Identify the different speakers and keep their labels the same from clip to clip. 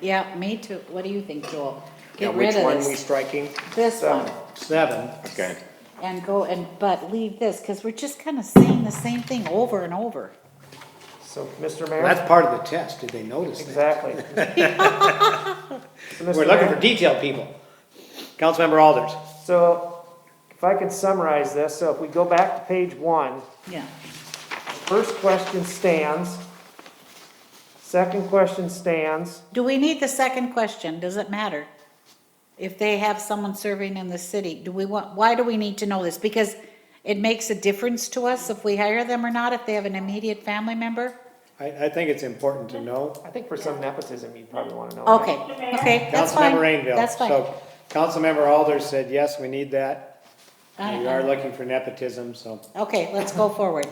Speaker 1: Yeah, me too. What do you think, Joel?
Speaker 2: Now,
Speaker 1: Get
Speaker 2: which
Speaker 1: rid of
Speaker 2: one we
Speaker 1: this,
Speaker 2: striking?
Speaker 1: this
Speaker 2: Seven.
Speaker 1: one,
Speaker 3: Seven,
Speaker 2: Okay.
Speaker 1: and go and, but leave this, cause we're just kinda saying the same thing over and over.
Speaker 4: So, Mr.
Speaker 3: Well,
Speaker 4: Mayor?
Speaker 3: that's part of the test, did they notice that?
Speaker 4: Exactly. So, Mr.
Speaker 3: We're looking
Speaker 4: Mayor?
Speaker 3: for detailed people. Councilmember Alders,
Speaker 4: So if I could summarize this, so if we go back to page one,
Speaker 1: Yeah,
Speaker 4: first question stands. Second question stands.
Speaker 1: do we need the second question? Does it matter? If they have someone serving in the city, do we want, why do we need to know this? Because it makes a difference to us if we hire them or not, if they have an immediate family member?
Speaker 3: I, I think it's important to know.
Speaker 4: I think for some nepotism, you'd probably want to know. that.
Speaker 1: Okay, okay, that's fine.
Speaker 3: Councilmember Rainville.
Speaker 1: That's fine.
Speaker 3: So, Councilmember Alders said, yes, we need that.
Speaker 1: I-
Speaker 3: We are looking for nepotism, so.
Speaker 1: Okay, let's go forward.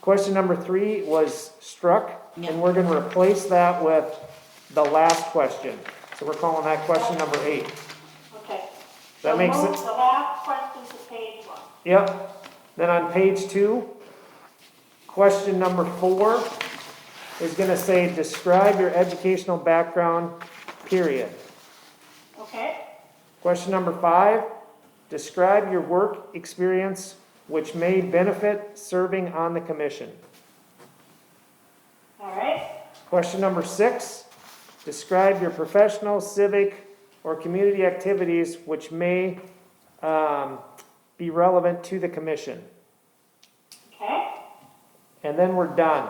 Speaker 4: Question number three was struck,
Speaker 1: Yeah.
Speaker 4: and we're going to replace that with the last question. So we're calling that question number eight.
Speaker 5: Okay.
Speaker 4: That
Speaker 5: So
Speaker 4: makes
Speaker 5: move
Speaker 4: it-
Speaker 5: The last question to page one.
Speaker 4: Yep. Then on page two, question number four is gonna say, describe your educational background, period.
Speaker 5: Okay?
Speaker 4: Question number five, describe your work experience which may benefit serving on the commission.
Speaker 5: All right?
Speaker 4: Question number six, describe your professional, civic, or community activities which may, um, be relevant to the commission.
Speaker 5: Okay?
Speaker 4: And then we're done.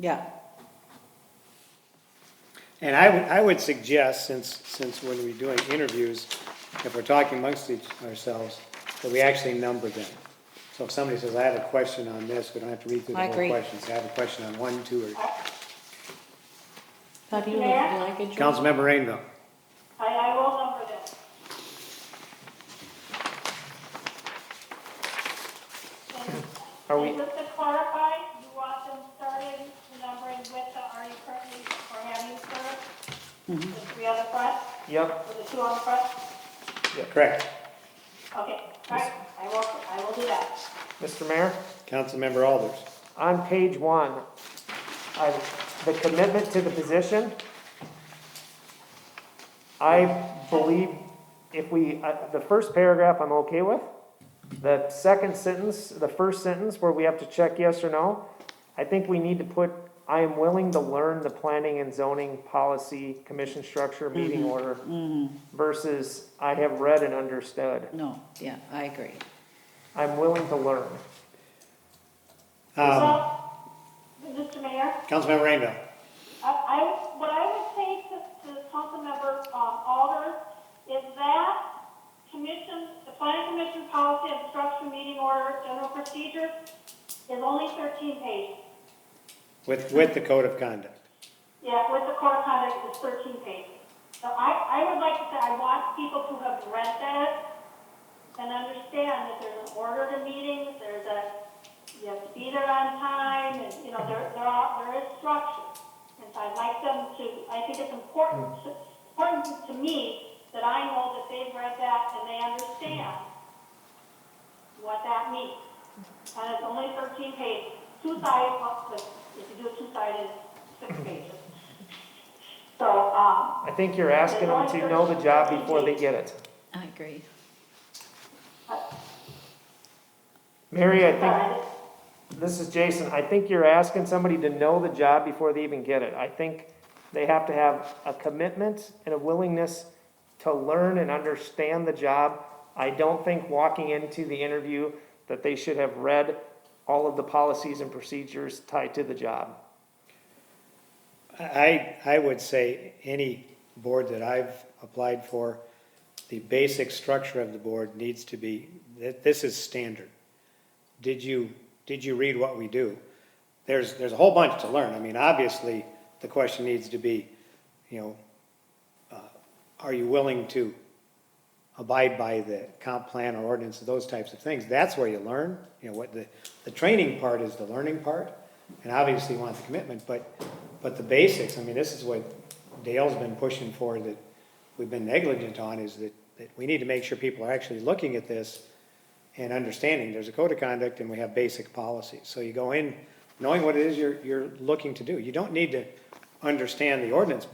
Speaker 1: Yeah.
Speaker 3: And I would, I would suggest, since, since when we're doing interviews, if we're talking amongst each ourselves, that we actually number them. So if somebody says, I have a question on this, we don't have to read through the
Speaker 1: I
Speaker 3: whole
Speaker 1: agree.
Speaker 3: question. Say, I have a question on one, two, or,
Speaker 1: How do you
Speaker 5: you
Speaker 1: like
Speaker 5: like
Speaker 1: it,
Speaker 3: Councilmember Rainville.
Speaker 5: I, I will number this. And-
Speaker 4: Are we-
Speaker 5: And just to clarify, you want them started numbering with the, are you currently, or have you served? The three on the front,
Speaker 4: Yep,
Speaker 5: or the two on the front?
Speaker 3: Correct.
Speaker 5: Okay, all right, I will, I will do that.
Speaker 4: Mr. Mayor?
Speaker 3: Councilmember Alders.
Speaker 4: on page one, I, the commitment to the position, I believe if we, uh, the first paragraph I'm okay with. The second sentence, the first sentence where we have to check yes or no, I think we need to put, I am willing to learn the planning and zoning policy, commission structure, meeting order versus I have read and understood.
Speaker 1: No, yeah, I agree.
Speaker 4: I'm willing to learn.
Speaker 3: Um,
Speaker 5: Well, Mr. Mayor?
Speaker 3: Councilmember Rainville.
Speaker 5: I, I, what I would say to, to Councilmember, um, Alders is that commission, the planning commission policy and structure meeting order, general procedure is only thirteen pages.
Speaker 3: With, with the code of conduct.
Speaker 5: Yeah, with the code of conduct, it's thirteen pages. So I, I would like to say, I want people to have read that and understand that there's an order to meetings, there's a, you have to be there on time, and, you know, there, there are, there is structure. And so I'd like them to, I think it's important, to- important to me that I know that they've read that and they understand what that means. And it's only thirteen pages, two-sided, well, if you do it two-sided, six pages. So, um,
Speaker 4: I think you're asking them to know the job before they get it.
Speaker 1: I agree.
Speaker 4: Mary, I think
Speaker 5: sorry,
Speaker 4: This is Jason. I think you're asking somebody to know the job before they even get it. I think they have to have a commitment and a willingness to learn and understand the job. I don't think walking into the interview that they should have read all of the policies and procedures tied to the job.
Speaker 3: I, I would say any board that I've applied for, the basic structure of the board needs to be, that this is standard. Did you, did you read what we do? There's, there's a whole bunch to learn. I mean, obviously, the question needs to be, you know, uh, are you willing to abide by the comp plan or ordinance, those types of things. That's where you learn, you know, what the, the training part is the learning part. And obviously you want the commitment, but, but the basics, I mean, this is what Dale's been pushing for that we've been negligent on is that, that we need to make sure people are actually looking at this and understanding there's a code of conduct and we have basic policies. So you go in knowing what it is you're, you're looking to do. You don't need to understand the ordinance